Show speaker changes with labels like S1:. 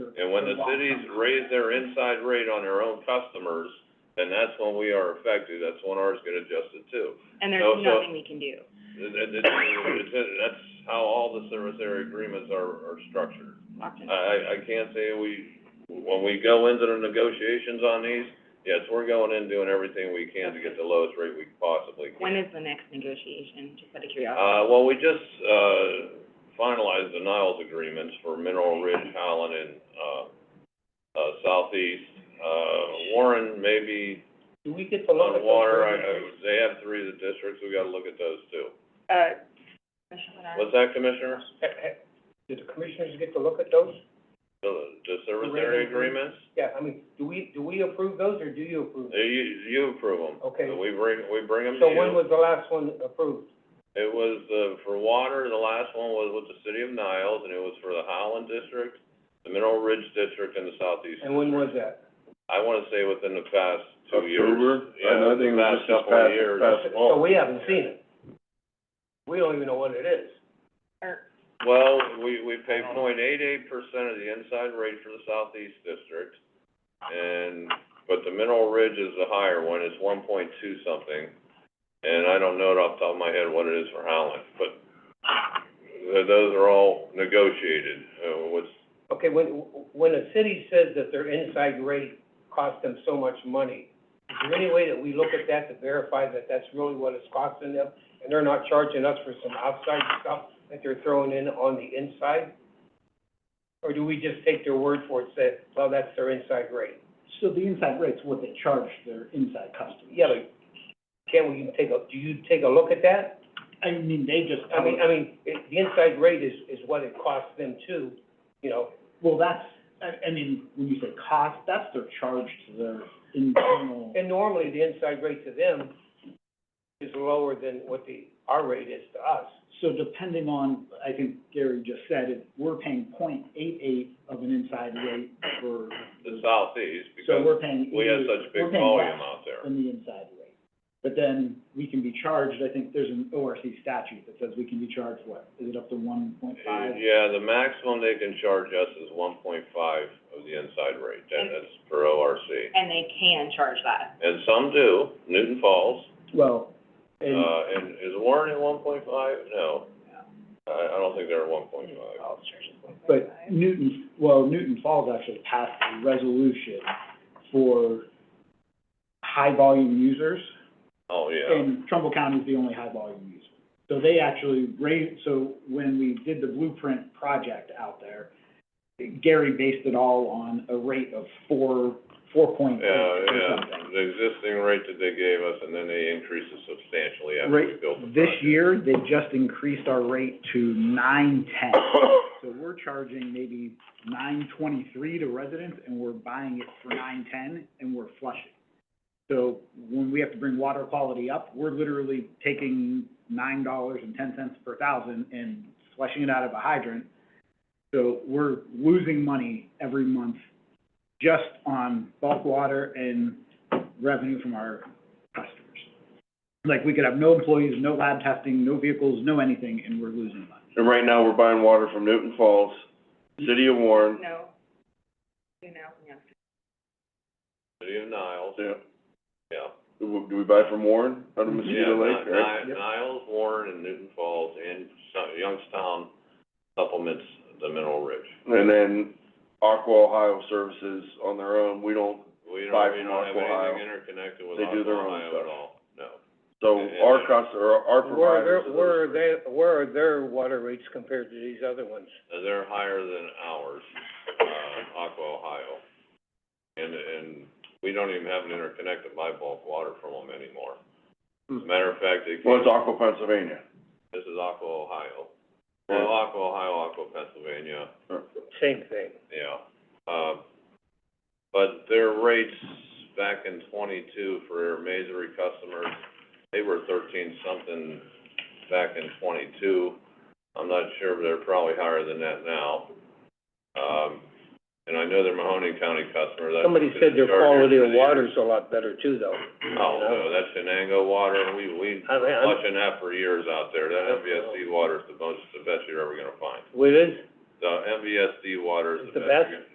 S1: And when the cities raise their inside rate on their own customers, then that's when we are affected, that's when ours get adjusted too.
S2: And there's
S1: No, so-
S2: nothing we can do.
S1: It- it- it- it's- it- that's how all the service area agreements are, are structured.
S2: Locked in.
S1: I, I, I can't say we, when we go into the negotiations on these, yes, we're going in doing everything we can to get the lowest rate we possibly can.
S2: When is the next negotiation, just out of curiosity?
S1: Uh, well, we just, uh, finalized the Niles agreements for Mineral Ridge, Holland, and, uh, uh, Southeast. Uh, Warren, maybe,
S3: Do we get to look
S1: on
S3: at those?
S1: water, I, I, they have three of the districts, we gotta look at those too.
S2: Uh, Commissioner Bernard?
S1: What's that, Commissioner?
S3: Ha- ha- Do the commissioners get to look at those?
S1: The, the service
S3: The rate
S1: area
S3: increase.
S1: agreements?
S3: Yeah, I mean, do we, do we approve those, or do you approve?
S1: Uh, You, you approve them.
S3: Okay.
S1: So we bring, we bring them to
S3: So when
S1: you.
S3: was the last one approved?
S1: It was, uh, for water, the last one was with the city of Niles, and it was for the Holland district, the Mineral Ridge district, and the Southeast.
S3: And when was that?
S1: I wanna say within the past two years.
S4: October?
S1: Yeah,
S4: I think it was
S1: past
S4: just this
S1: couple of
S4: past-
S1: years.
S4: past fall.
S3: Uh, So we haven't seen it. We don't even know what it is.
S2: Or-
S1: Well, we, we pay point eight eight percent of the inside rate for the southeast district, and, but the Mineral Ridge is the higher one, it's one point two something. And I don't know it off the top of my head what it is for Howland, but th- those are all negotiated, uh, what's,
S3: Okay, when, when a city says that their inside rate costs them so much money, is there any way that we look at that to verify that that's really what it's costing them? And they're not charging us for some outside stuff that they're throwing in on the inside? Or do we just take their word for it, and say, well, that's their inside rate?
S5: So the inside rate's what they charge their inside customers.
S3: Yeah, but can we take a, do you take a look at that?
S5: I mean, they just,
S3: I mean, I mean, it- the inside rate is, is what it costs them too, you know,
S5: well, that's, I, I mean, when you say cost, that's their charge to their internal.
S3: And normally, the inside rate to them is lower than what the, our rate is to us.
S5: So depending on, I think Gary just said, if we're paying point eight eight of an inside rate for,
S1: the southeast,
S5: so
S1: because
S5: we're paying.
S1: we have
S5: either-
S1: such big
S5: we're paying less
S1: volume out there.
S5: Than the inside rate. But then we can be charged, I think there's an ORC statute that says we can be charged, what, is it up to one point five?
S1: Yeah, the maximum they can charge us is one point five of the inside rate, that,
S2: And-
S1: that's per ORC.
S2: And they can charge that.
S1: And some do, Newton Falls,
S5: Well, and.
S1: Uh, and is Warren at one point five? No. I, I don't think they're at one point five.
S2: All charges.
S5: But Newton, well, Newton Falls actually passed a resolution for high-volume users,
S1: Oh, yeah.
S5: and Trumbull County is the only high-volume user. So they actually raised, so when we did the blueprint project out there, Gary based it all on a rate of four, four point eight
S1: Yeah,
S5: or
S1: yeah,
S5: something.
S1: the existing rate that they gave us, and then they increased it substantially after we
S5: Right,
S1: built the project.
S5: this year, they just increased our rate to nine ten. So we're charging maybe nine twenty-three to residents, and we're buying it for nine ten, and we're flushing. So when we have to bring water quality up, we're literally taking nine dollars and ten cents per thousand and flushing it out of a hydrant. So we're losing money every month just on bulk water and revenue from our customers. Like, we could have no employees, no lab testing, no vehicles, no anything, and we're losing money.
S4: And right now, we're buying water from Newton Falls, City of Warren,
S2: No. You know, no.
S1: City of Niles,
S4: yeah.
S1: yeah.
S4: Do we- do we buy from Warren, out of Mosquito
S1: Yeah,
S4: Lake,
S1: Ni-
S4: right?
S1: Ni- Niles, Warren, and Newton Falls, and Su- Youngstown supplements the Mineral Ridge.
S4: And then Aqua Ohio Services on their own, we don't,
S1: We
S4: Buy
S1: don't, we
S4: from
S1: don't have
S4: Aqua Ohio.
S1: anything interconnected with
S4: They do their
S1: Aqua
S4: own
S1: Ohio at
S4: stuff.
S1: all, no.
S4: so
S1: Yeah,
S4: our
S1: yeah.
S4: costs are,
S3: Where are
S4: our providers.
S3: their, where are their, where are their water rates compared to these other ones?
S1: Uh, They're higher than ours, uh, Aqua Ohio. And, and we don't even have an interconnected by bulk water from them anymore. As a matter of fact, they,
S4: Hmm. Well, it's Aqua Pennsylvania.
S1: this is Aqua Ohio. Well, Aqua Ohio, Aqua Pennsylvania,
S3: Same thing.
S1: yeah. Um, but their rates back in twenty-two for their Masery customers, they were thirteen something back in twenty-two. I'm not sure, but they're probably higher than that now. Um, and I know they're Mahoning County customer, that's.
S3: Somebody said their
S1: been charged
S3: quality
S1: for
S3: of
S1: the years.
S3: water's a lot better too, though.
S1: Oh, no, that's Shenango water, we, we
S3: I mean, I'm-
S1: watching that for years out there, that MVSD water is the most, the best you're ever gonna find.
S3: What is?
S1: The MVSD water is
S3: It's
S1: the
S3: the
S1: best you're
S3: best?
S1: gonna-